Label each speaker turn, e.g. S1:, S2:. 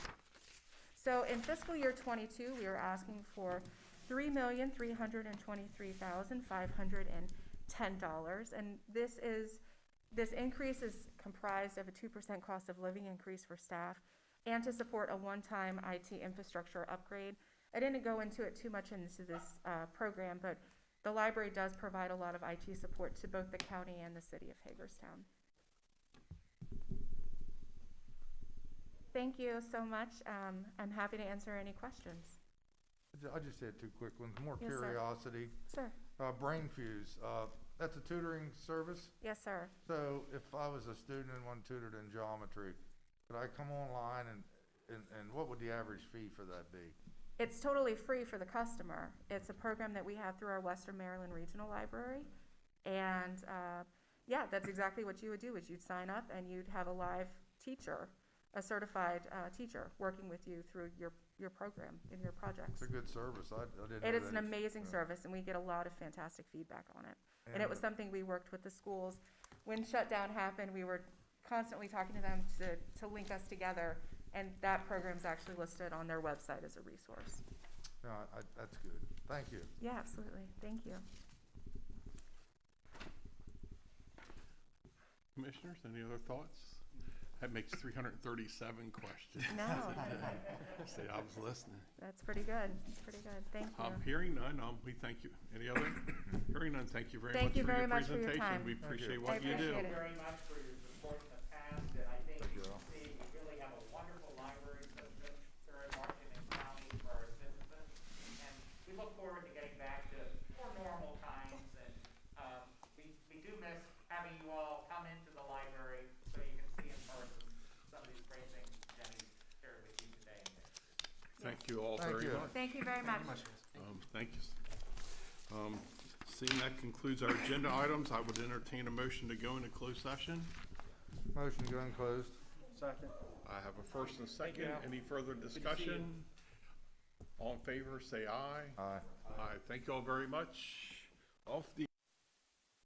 S1: So in fiscal year twenty-two, we were asking for three million, three hundred and twenty-three thousand, five hundred and ten dollars. And this is, this increase is comprised of a two percent cost of living increase for staff and to support a one-time IT infrastructure upgrade. I didn't go into it too much into this, uh, program, but the library does provide a lot of IT support to both the county and the city of Hagerstown. Thank you so much. Um, I'm happy to answer any questions.
S2: I ju- I just had two quick ones, more
S1: Yes, sir.
S2: curiosity.
S1: Sir?
S2: Uh, Brain Fuse, uh, that's a tutoring service.
S1: Yes, sir.
S2: So if I was a student and one tutored in geometry, could I come online and, and, and what would the average fee for that be?
S1: It's totally free for the customer. It's a program that we have through our Western Maryland Regional Library. And, uh, yeah, that's exactly what you would do, is you'd sign up and you'd have a live teacher, a certified, uh, teacher, working with you through your, your program and your projects.
S2: It's a good service. I, I didn't know
S1: It
S2: that.
S1: is an
S2: ex-
S1: amazing
S2: yeah.
S1: service, and we get a lot of fantastic feedback on it. And
S2: And
S1: it was
S2: it-
S1: something we worked with the schools. When shutdown happened, we were constantly talking to them to, to link us together, and that program's actually listed on their website as a resource.
S2: uh, No, I, I- that's good. Thank you.
S1: Yeah, absolutely. Thank you.
S3: Commissioners, any other thoughts? That makes three hundred and thirty-seven questions.
S1: No,
S3: Say, I was listening.
S1: that's pretty good. That's pretty good. Thank
S3: Um,
S1: you.
S3: hearing none, um, we thank you. Any other? Hearing none, thank you very
S1: Thank
S3: much for
S1: you very
S3: your
S1: much for your time.
S3: presentation. We
S1: Thank
S2: you.
S3: appreciate
S1: I
S3: what you do.
S1: appreciate it.
S4: very much for your support in the past, and I think
S2: Thank
S4: you
S2: you
S4: can
S2: all.
S4: see, we really have a wonderful library system here in Washington County for our citizens. And we look forward to getting back to more normal times, and, um, we, we do miss having you all come into the library so you can see in person some of these great things Jenny shared with you today.
S3: Thank you all
S2: Thank
S3: very
S2: you.
S3: much.
S1: Thank you very much.
S3: Um, thank you. Um, seeing that concludes our agenda items, I would entertain a motion to go into closed session.
S2: Motion to go in closed.
S3: I have a first and second. Any further discussion? All in favor, say aye.
S2: Aye.
S3: Aye. Thank you all very much. Off the.